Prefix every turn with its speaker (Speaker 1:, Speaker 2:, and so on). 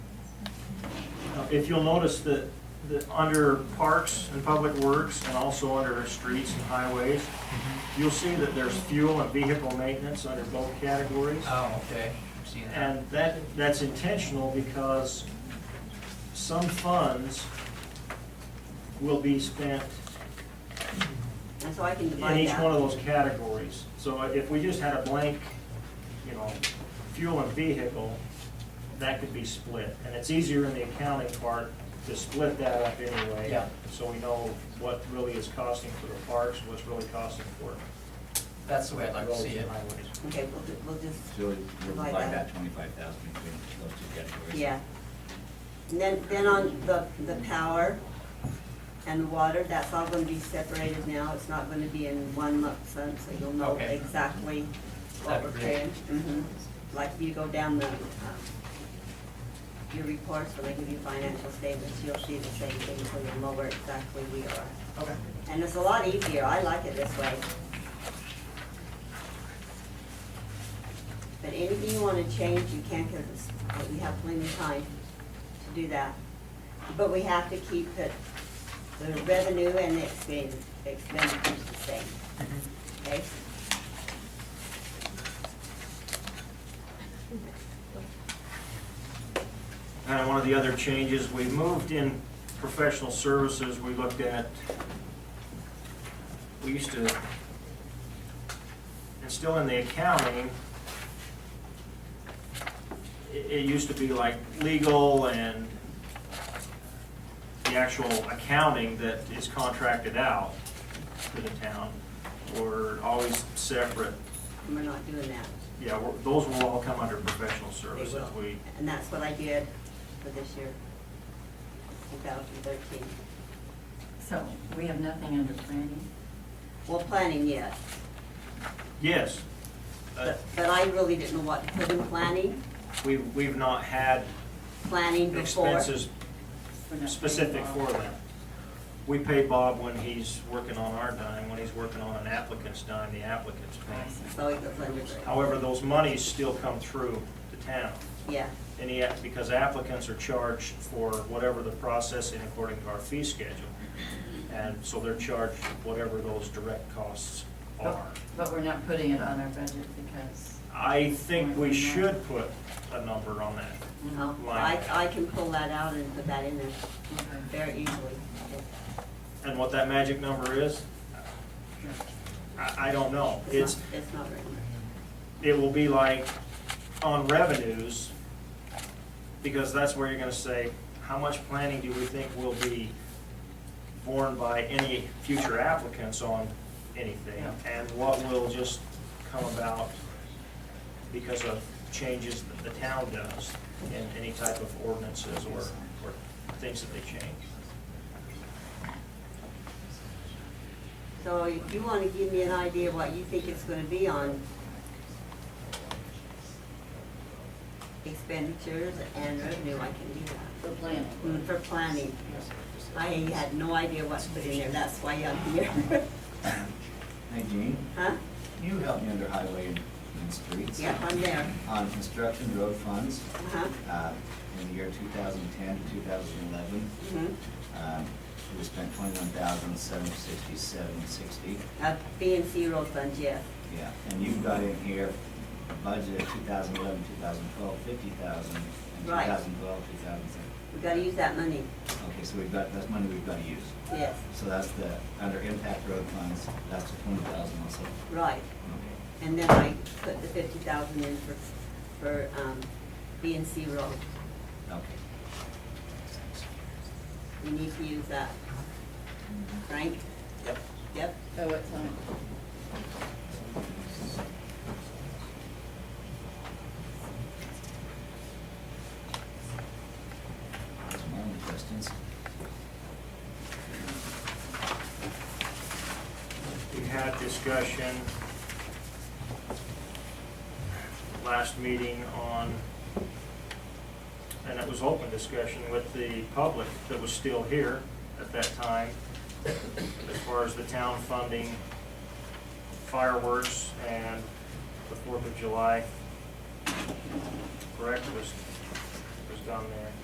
Speaker 1: if you'll notice that, that under parks and public works and also under streets and highways, you'll see that there's fuel and vehicle maintenance under both categories.
Speaker 2: Oh, okay, I'm seeing that.
Speaker 1: And that, that's intentional because some funds will be spent
Speaker 3: And so I can
Speaker 1: in
Speaker 3: divide
Speaker 1: each one
Speaker 3: that.
Speaker 1: of those categories. So if we just had a blank, you know, fuel and vehicle, that could be split. And it's easier in the accounting part to split that up anyway.
Speaker 2: Yeah.
Speaker 1: So we know what really is costing for the parks, what's really costing for
Speaker 2: That's the way I'd like to
Speaker 1: roads and
Speaker 2: see it.
Speaker 1: highways.
Speaker 3: Okay, we'll, ju- we'll just,
Speaker 4: So we- we'll divide that twenty-five thousand between those two categories.
Speaker 3: yeah. And then, then on the, the power and the water, that's all gonna be separated now. It's not gonna be in one lump sum, so you'll know
Speaker 2: Okay.
Speaker 3: exactly what
Speaker 2: That'd
Speaker 3: we're
Speaker 2: be great.
Speaker 3: paying. Mhm. Like you go down the, um, your reports, when they give you financial statements, you'll see the same thing, so you'll know where exactly we are.
Speaker 2: Okay.
Speaker 3: And it's a lot easier, I like it this way. But anything you wanna change, you can, cause it's, but we have plenty of time to do that. But we have to keep the, the revenue and the expen- expenditures the same, okay?
Speaker 1: And Uh, one of the other changes, we moved in professional services, we looked at, we used to, and still in the accounting, it, it used to be like legal and the actual accounting that is contracted out to the town were always separate.
Speaker 3: And we're not doing that.
Speaker 1: Yeah, we're- those will all come under professional
Speaker 3: They
Speaker 1: services.
Speaker 3: will.
Speaker 1: We,
Speaker 3: And that's what I did for this year, two thousand thirteen.
Speaker 5: So we have nothing under planning?
Speaker 3: Well, planning, yes,
Speaker 1: yes. Uh,
Speaker 3: but, but I really didn't know what to put in planning,
Speaker 1: We, we've not had
Speaker 3: planning before.
Speaker 1: expenses
Speaker 5: We're not
Speaker 1: specific
Speaker 5: planning
Speaker 1: for
Speaker 5: at all.
Speaker 1: them. We pay Bob when he's working on our dime, when he's working on an applicant's dime, the applicant's
Speaker 5: I
Speaker 1: dime.
Speaker 5: see.
Speaker 3: So it goes under, the-
Speaker 1: However, those monies still come through the town,
Speaker 3: yeah,
Speaker 1: and he, because applicants are charged for whatever the processing according to our fee schedule. And so they're charged whatever those direct costs
Speaker 5: But-
Speaker 1: are.
Speaker 5: But we're not putting it on our budget because,
Speaker 1: I think we should put a number on that.
Speaker 5: you know,
Speaker 3: no, Oh, I, I can pull that out and put that in there
Speaker 5: okay,
Speaker 3: very easily.
Speaker 1: And what that magic number is,
Speaker 5: no.
Speaker 1: I, I don't know. It's,
Speaker 3: It's not, it's not written.
Speaker 1: it will be like on revenues, because that's where you're gonna say, how much planning do we think will be borne by any future applicants on anything? And what will just come about because of changes that the town does in any type of ordinances or, or things that they change.
Speaker 3: So if you wanna give me an idea of what you think it's gonna be on expenditures and revenue, I can do that.
Speaker 5: For planning.
Speaker 3: Mm, For planning, I had no idea what to put in there, that's why I'm here.
Speaker 4: Hey, Jean,
Speaker 3: Huh?
Speaker 4: can you help me under highway and, and streets?
Speaker 3: Yeah, I'm there.
Speaker 4: On construction road funds,
Speaker 3: Uh-huh,
Speaker 4: uh, in the year two thousand ten to two thousand eleven,
Speaker 3: mhm.
Speaker 4: um, we spent twenty-one thousand seven sixty-seven sixty.
Speaker 3: Uh, B and C road fund, yes.
Speaker 4: Yeah, and you've got in here a budget of 2011, 2012, 50,000, and
Speaker 3: Right.
Speaker 4: 2012, 2013.
Speaker 3: We gotta use that money,
Speaker 4: Okay, so we've got, that's money we've got to use.
Speaker 3: yes,
Speaker 4: So that's the, under impact road funds, that's the 20,000 also.
Speaker 3: right.
Speaker 4: Okay.
Speaker 3: And then I put the fifty thousand in for, for, um, B and C road.
Speaker 4: Okay.
Speaker 3: We need to use that. Frank? Yep. Yep,
Speaker 5: Oh, it's on,
Speaker 4: That's my only questions.
Speaker 1: We had discussion last meeting on, and it was open discussion with the public that was still here at that time, as far as the town funding fireworks and the Fourth of July, correct, was, was done there.